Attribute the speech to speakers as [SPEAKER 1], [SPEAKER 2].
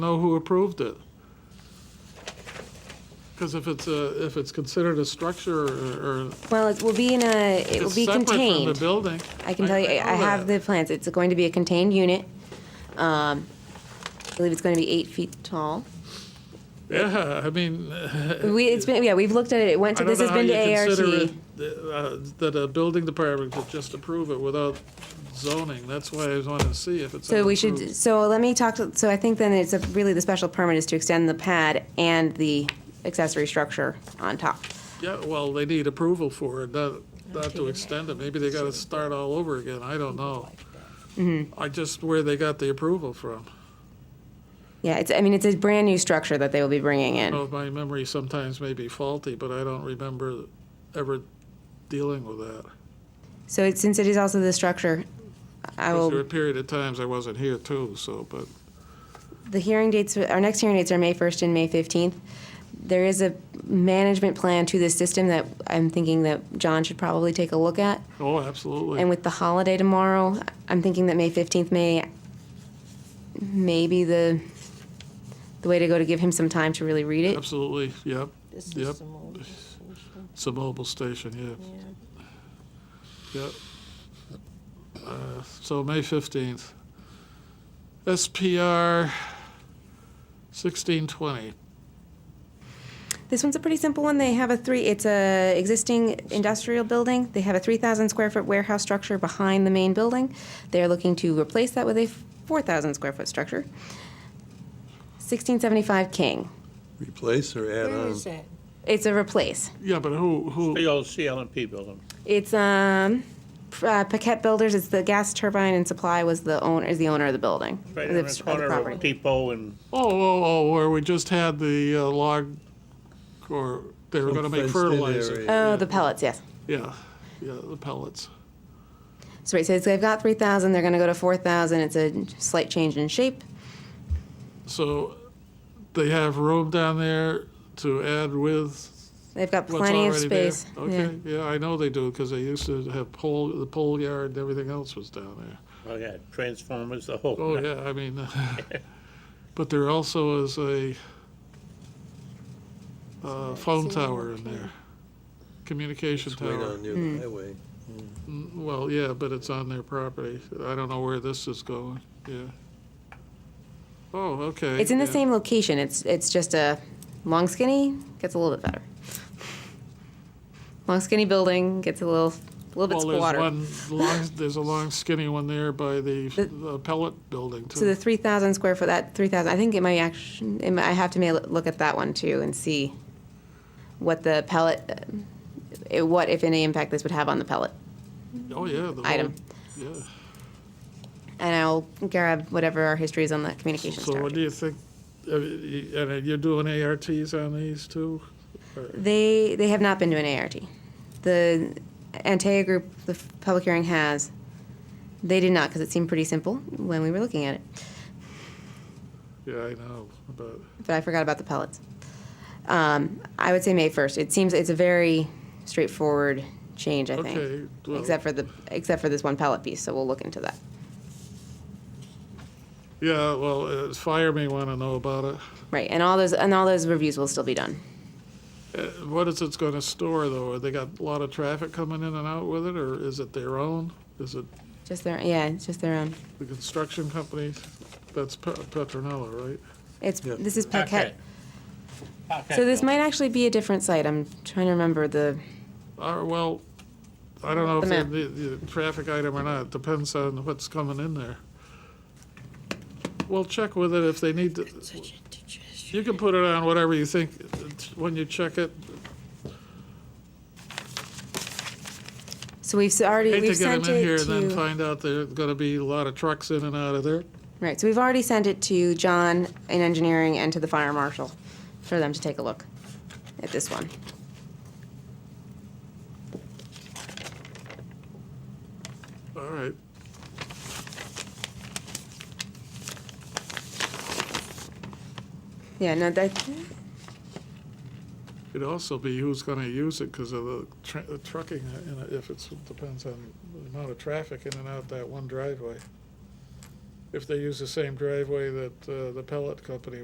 [SPEAKER 1] know who approved it. Because if it's a, if it's considered a structure or, or
[SPEAKER 2] Well, it will be in a, it will
[SPEAKER 1] it's
[SPEAKER 2] be
[SPEAKER 1] separate from the
[SPEAKER 2] contained.
[SPEAKER 1] building.
[SPEAKER 2] I can tell you, I
[SPEAKER 1] know
[SPEAKER 2] have
[SPEAKER 1] that.
[SPEAKER 2] the plans. It's going to be a contained unit. Um, I believe it's going to be eight feet tall.
[SPEAKER 1] Yeah, I mean,
[SPEAKER 2] We, it's been, yeah, we've looked at it. It went
[SPEAKER 1] Uh, I
[SPEAKER 2] to,
[SPEAKER 1] don't
[SPEAKER 2] this
[SPEAKER 1] know
[SPEAKER 2] has
[SPEAKER 1] how
[SPEAKER 2] been
[SPEAKER 1] you
[SPEAKER 2] to ART.
[SPEAKER 1] consider it, uh, that a building department could just approve it without zoning. That's why I was wanting to see if it's.
[SPEAKER 2] So we
[SPEAKER 1] unapproved.
[SPEAKER 2] should, so let me talk, to- so I think then it's a- really the special permit is to extend the pad and the accessory structure on top.
[SPEAKER 1] Yeah, well, they need approval for it, not, not to extend it. Maybe they gotta start all over again. I don't know.
[SPEAKER 2] Mm-hmm.
[SPEAKER 1] I just, where they got the approval from.
[SPEAKER 2] Yeah, it's, I mean, it's a brand-new structure that they will be bringing in.
[SPEAKER 1] Well, my memory sometimes may be faulty, but I don't remember ever dealing with that.
[SPEAKER 2] So it- since it is also the structure, I
[SPEAKER 1] Because there were a
[SPEAKER 2] will,
[SPEAKER 1] period of times I wasn't here too, so, but,
[SPEAKER 2] the hearing dates, our next hearing dates are May 1st and May 15th. There is a management plan to this system that I'm thinking that John should probably take a look at.
[SPEAKER 1] oh, absolutely.
[SPEAKER 2] And with the holiday tomorrow, I'm thinking that May 15th may, may be the, the way to go to give him some time to really read it.
[SPEAKER 1] Absolutely, yep,
[SPEAKER 3] This
[SPEAKER 1] Yep.
[SPEAKER 3] is the mold.
[SPEAKER 1] it's a mobile station,
[SPEAKER 3] Yeah.
[SPEAKER 1] yeah, yep. Uh, So May fifteenth. SPR sixteen twenty,
[SPEAKER 2] This one's a pretty simple one. They have a three, it's a existing industrial building. They have a 3,000 square foot warehouse structure behind the main building. They're looking to replace that with a 4,000 square foot structure. 1675 King.
[SPEAKER 4] Replace or add
[SPEAKER 3] Where
[SPEAKER 4] on?
[SPEAKER 3] is that?
[SPEAKER 2] It's a replace.
[SPEAKER 1] yeah, but who, who,
[SPEAKER 5] The old CLMP building.
[SPEAKER 2] It's um, P- uh, Paquette Builders. It's the gas turbine and supply was the owner is the owner of the building.
[SPEAKER 5] Right
[SPEAKER 2] of the,
[SPEAKER 5] in
[SPEAKER 2] of
[SPEAKER 5] the
[SPEAKER 2] the
[SPEAKER 5] corner
[SPEAKER 2] property.
[SPEAKER 5] of Depot and,
[SPEAKER 1] oh, oh, oh, where we just had the uh, log, or they were gonna make
[SPEAKER 4] Fenced in
[SPEAKER 1] fertilizer.
[SPEAKER 4] area.
[SPEAKER 2] Oh, the pellets. Yes.
[SPEAKER 1] Yeah, yeah, the pellets.
[SPEAKER 2] So right. So it's, they've got three thousand. They're going to go to four thousand. It's a slight change in shape.
[SPEAKER 1] So they have room down there to add with
[SPEAKER 2] They've got
[SPEAKER 1] what's
[SPEAKER 2] plenty of
[SPEAKER 1] already there?
[SPEAKER 2] space.
[SPEAKER 1] Okay, yeah, I know they do, because they used to have pole, the pole yard and everything else was down there.
[SPEAKER 5] oh yeah, Transformers, the whole.
[SPEAKER 1] Oh, yeah, I mean, but there also is a uh, phone tower in there, communication
[SPEAKER 4] It's way
[SPEAKER 1] tower.
[SPEAKER 4] down near
[SPEAKER 3] Hmm.
[SPEAKER 4] the highway.
[SPEAKER 1] Well, yeah, but it's on their property. I don't know where this is going, yeah. Oh, okay.
[SPEAKER 2] It's in the
[SPEAKER 1] yeah.
[SPEAKER 2] same location. It's it's just a long skinny gets a little bit better. Long skinny building gets a little a little bit
[SPEAKER 1] Well, there's
[SPEAKER 2] squatter.
[SPEAKER 1] one long, there's a long skinny one there by the
[SPEAKER 2] The-
[SPEAKER 1] the pellet building
[SPEAKER 2] So the
[SPEAKER 1] too.
[SPEAKER 2] three thousand square foot, that three thousand, I think it might actually, it might, I have to may look at that one too and see what the pellet, uh, what if any impact this would have on the pellet
[SPEAKER 1] Oh, yeah. the
[SPEAKER 2] item.
[SPEAKER 1] whole- yeah.
[SPEAKER 2] And I'll grab whatever our history is on the communications
[SPEAKER 1] So what do
[SPEAKER 2] tower.
[SPEAKER 1] you think, uh, y- and uh, you're doing ARTs on these too?
[SPEAKER 2] They, they have not been to an ART. The Antea group, the f- public hearing has, they did not, because it seemed pretty simple when we were looking at it.
[SPEAKER 1] Yeah, I know, but,
[SPEAKER 2] but I forgot about the pellets. Um, I would say May first. It seems it's a very straightforward change. I
[SPEAKER 1] Okay,
[SPEAKER 2] think,
[SPEAKER 1] well-
[SPEAKER 2] except for the except for this one pellet piece. So we'll look into that.
[SPEAKER 1] yeah, well, uh, fire may want to know about it.
[SPEAKER 2] Right, and all those and all those reviews will still be done.
[SPEAKER 1] Uh, What is it's going to store though? They got a lot of traffic coming in and out with it, or is it their own? Is it
[SPEAKER 2] Just their yeah, it's just their own.
[SPEAKER 1] the construction company? That's Pe- Petronella, right?
[SPEAKER 2] It's
[SPEAKER 4] Yeah.
[SPEAKER 2] this is Paquette.
[SPEAKER 5] Paquette. Paquette
[SPEAKER 2] So this
[SPEAKER 5] building.
[SPEAKER 2] might actually be a different site. I'm trying to remember the
[SPEAKER 1] Uh, well, I don't know if
[SPEAKER 2] The
[SPEAKER 1] they're
[SPEAKER 2] map.
[SPEAKER 1] the, the traffic item or not, depends on what's coming in there. We'll check with it if they need to,
[SPEAKER 3] Such a digestion.
[SPEAKER 1] you can put it on whatever you think, it's- when you check it.
[SPEAKER 2] so we've s- already
[SPEAKER 1] Hate to
[SPEAKER 2] we've
[SPEAKER 1] get
[SPEAKER 2] sent
[SPEAKER 1] them in
[SPEAKER 2] it
[SPEAKER 1] here and
[SPEAKER 2] to
[SPEAKER 1] then find out there's gonna be a lot of trucks in and out of there.
[SPEAKER 2] right. So we've already sent it to John in engineering and to the fire marshal for them to take a look at this one.
[SPEAKER 1] All right.
[SPEAKER 2] Yeah, no, that
[SPEAKER 1] It'd also be who's gonna use it because of the tra- the trucking, uh, and if it's, depends on the amount of traffic in and out that one driveway. if they use the same driveway that uh, the pellet company